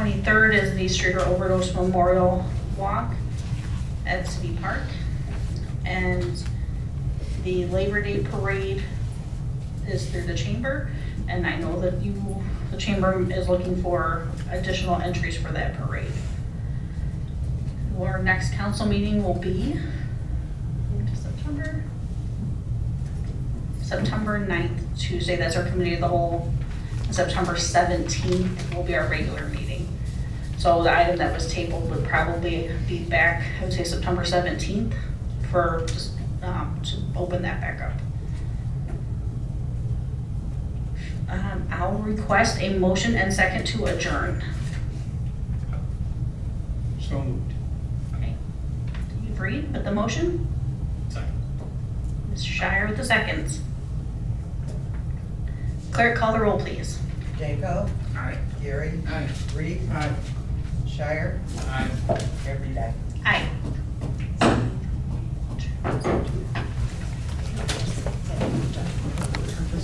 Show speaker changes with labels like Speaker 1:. Speaker 1: twenty-third is the Streeter Overdose Memorial Walk at City Park. And the Labor Day Parade is through the chamber. And I know that you, the chamber is looking for additional entries for that parade. Our next council meeting will be into September. September 9th, Tuesday, that's our committee of the whole. And September 17th will be our regular meeting. So the item that was tabled would probably be back, I would say September 17th for, just, um, to open that back up. Um, I'll request a motion and second to adjourn.
Speaker 2: So moved.
Speaker 1: Okay. You agree with the motion?
Speaker 2: Second.
Speaker 1: Mr. Shire with the seconds. Clerk, call the roll, please.
Speaker 3: Danko,
Speaker 2: Aye.
Speaker 3: Gary,
Speaker 2: Aye.
Speaker 3: Reed,
Speaker 2: Aye.
Speaker 3: Shire,
Speaker 2: Aye.
Speaker 3: every day.
Speaker 1: Aye.